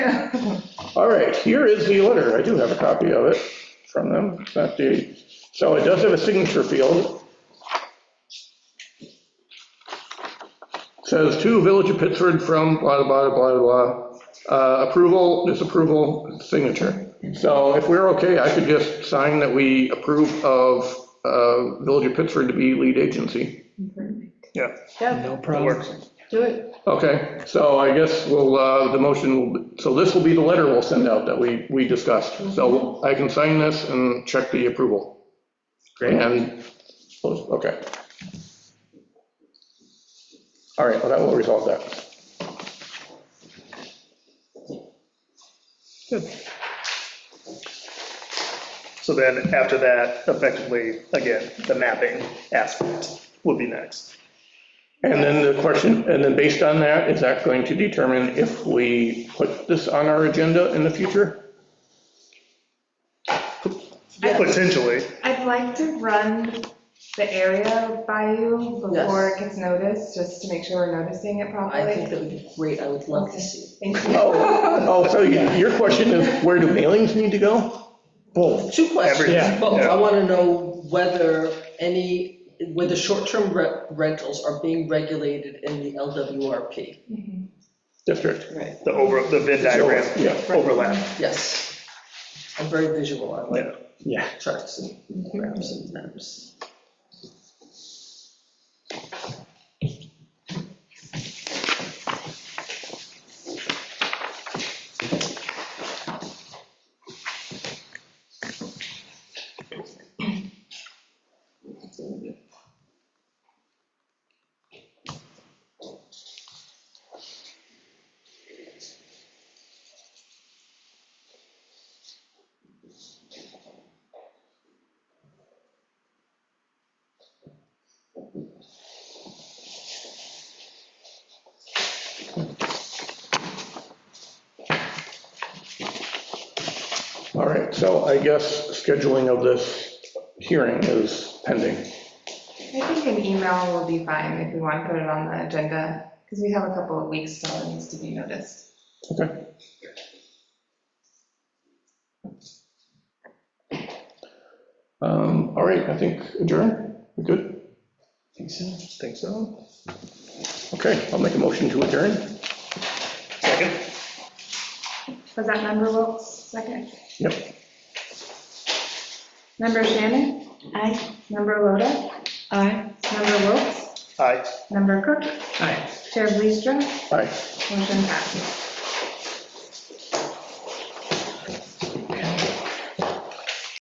All right, here is the letter. I do have a copy of it from them. It's not the, so it does have a signature field. Says to Village of Pittsford from blah, blah, blah, blah, uh, approval, disapproval, signature. So if we're okay, I could just sign that we approve of uh, Village of Pittsford to be lead agency. Yeah. Yeah, No problem. do it. Okay, so I guess we'll, uh, the motion, will so this will be the letter we'll send out that we, we discussed. So I can sign this and check the approval. Great. And, oh, okay. All right, well, that will resolve that. So then after that, effectively, again, the mapping aspect would be next. And then the question, and then based on that, is that going to determine if we put this on our agenda in the future? Potentially, I'd like to run the area by you before it gets noticed, just to make sure we're noticing it I think properly. that would be great, I would love to see. Thank Oh, you. oh, so you- your question is, where do mailings need to go? Both. Two Everything, questions, both. yeah. I want to know whether any, whether short-term re- rentals are being regulated in the LWRP. Mhm. District. Right. the over, the Venn diagram Yeah. overlap. Yes. I'm very visual, I like Yeah. charts and graphs and maps. All right, so I guess scheduling of this hearing is pending. I think an email will be fine if we want to put it on the agenda, because we have a couple of weeks still that needs to be noticed. Okay. Um, All right, I think adjourn, we good? Think so. Think so. Okay, I'll make a motion to adjourn. Second, Was that member Wilks, second? Yep. Member Shannon? Aye. Member Loda? Aye. Member Wilks? aye. Member Cook? Hi. Chair Bleasdrum? Aye. Motion passes.